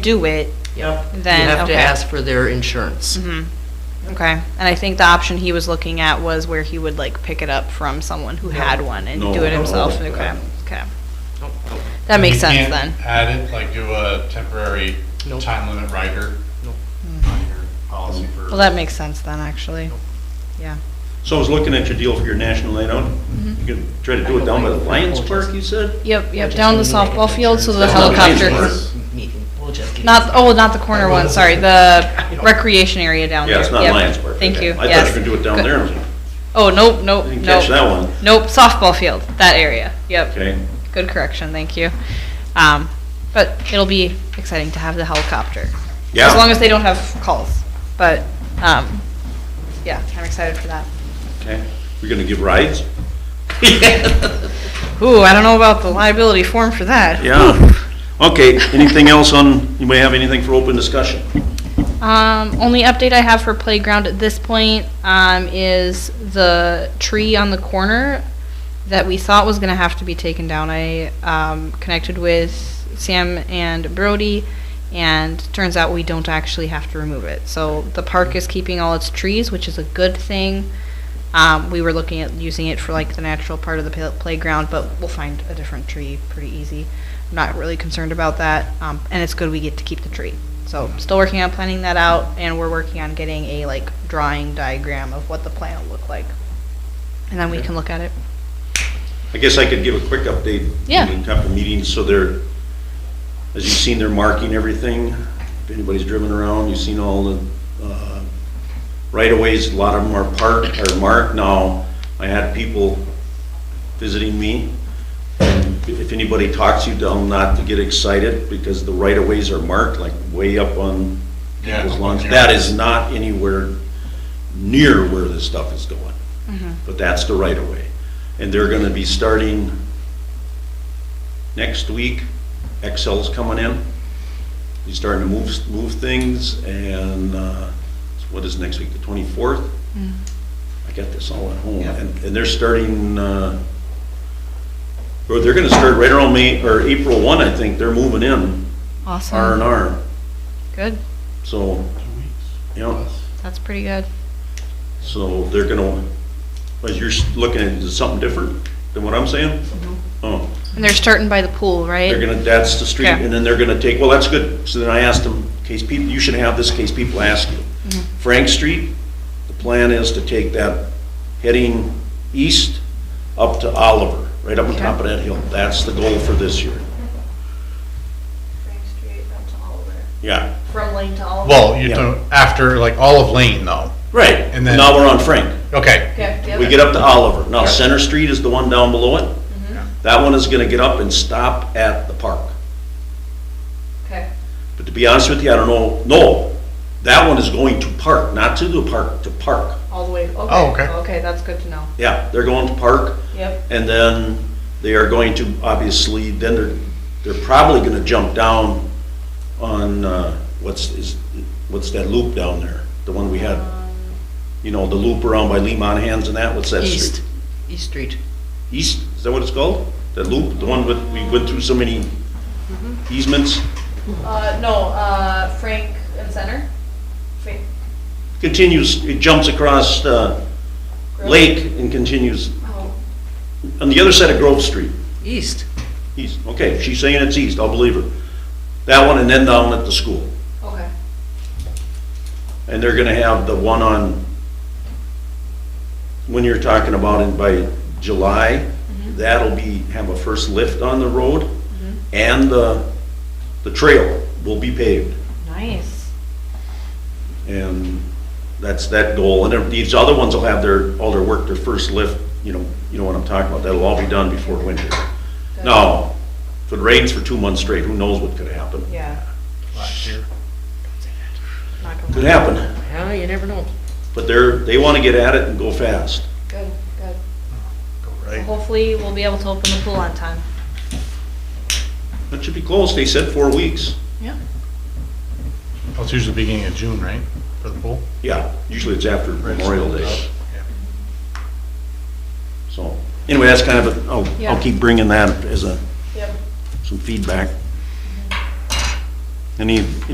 do it, Yep. Then, You have to okay. ask for their insurance. Mhm. okay. And I think the option he was looking at was where he would like pick it up from someone who had one and No, do it no, himself. no, no. Okay, okay. Mm-hmm. That makes You sense then. can't Add it, like do a temporary Nope. time limit rider Nope. on your policy for. Well, that makes sense then, actually. Yeah. So I was looking at your deal for your national night out. Mm-hmm. You can try to do it down by the Lions Park, you said? Yep, We'll yep, just down the meet at softball field, so the That's not helicopter- helicopters. Meeting. We'll just get- Not, oh, not the corner one, sorry, the recreation area down there. Yeah, it's not Yep. Lions Park. Thank Okay. you, I thought you yes. could do it down Good. there. I was like, Oh, nope, nope, I nope. didn't catch that one. Nope, softball field, that area, yep. Okay. Good correction, thank you. Um, but it'll be exciting to have the helicopter. Yeah. As long as they don't have calls, but, um, yeah, I'm excited for that. Okay. We're gonna give rides? Ooh, I don't know about the liability form for that. Yeah. Okay, anything else on, you may have anything for open discussion? Um, only update I have for playground at this point, um, is the tree on the corner that we thought was gonna have to be taken down. I, um, connected with Sam and Brody, and turns out we don't actually have to remove it. So the park is keeping all its trees, which is a good thing. Um, we were looking at using it for like the natural part of the pla- playground, but we'll find a different tree pretty easy. I'm not really concerned about that, um, and it's good we get to keep the tree. So still working on planning that out, and we're working on getting a like drawing diagram of what the plan will look like, and then we can look at it. I guess I could give a quick update. Yeah. meeting, Couple meetings, so they're, as you've seen, they're marking everything. If anybody's driven around, you've seen all the uh, right-of-ways, a lot of them are parked, are marked now. I had people visiting me. and If anybody talks you down, not to get excited, because the right-of-ways are marked like way up on Yeah. people's lawns. That is not anywhere near where this stuff is going. But that's the right of way. And they're gonna be starting next week. Excel's coming in. He's starting to move, move things and, uh, what is next week, the twenty-fourth? I got this all at home. Yeah. And, and they're starting, uh, or they're gonna start right around May, or April one, I think. They're moving in, Awesome. R and R. Good. So, you know, That's pretty good. so they're gonna, but you're s- looking at something different than what I'm saying? Oh, And they're starting by the pool, right? they're gonna, that's the street, Okay. and then they're gonna take, well, that's good. So then I asked them, case people, you should have this in case people ask you. Frank Street, the plan is to take that heading east up to Oliver, right up on top of that hill. That's the goal for this year. Frank Street up to Oliver. Yeah, From Lane to Oliver. Well, you Yeah. don't, after like all of Lane though. right. And then- Now we're on Frank. Okay, Okay, the We other, get up to Oliver. Now, Center Street is the one down below it. That one is gonna get up and stop at the park. okay. But to be honest with you, I don't know, no, that one is going to park, not to the park, to park. All the way, okay. Oh, okay. Okay, that's good to know. Yeah, they're going to park, Yep. and then they are going to, obviously, then they're, they're probably gonna jump down on, uh, what's, is, what's that loop down there? The one we had, you know, the loop around by Lee Monahan's and that, what's that street? East, East Street. East, is that what it's called? That loop, the one with, we went through so many easements? Uh, no, uh, Frank and Center? Frank Continues, it jumps across, uh, Grove? Lake and continues Oh, on the other side of Grove Street. East. East, okay, if she's saying it's east, I'll believe her. That one and then down at the school. okay. And they're gonna have the one on, when you're talking about it by July, that'll be, have a first lift on the road and the, the trail will be paved. Nice. And that's that goal. And then these other ones will have their, all their work, their first lift, you know, you know what I'm talking about. That'll all be done before winter. Good. Now, if it rains for two months straight, who knows what could happen? Yeah. last year. not gonna Could lie. happen, Yeah, you never know. but they're, they want to get at it and go fast. Good, good. Go right. Hopefully, we'll be able to open the pool on time. That should be close, they said four weeks. Well, Oh, It's usually beginning of June, right, for the pool? Oh, Yeah, usually it's after Memorial Day. Yeah. So, anyway, that's kind of, a. I'll, Yeah. I'll keep bringing that as a, Yep. some feedback. Any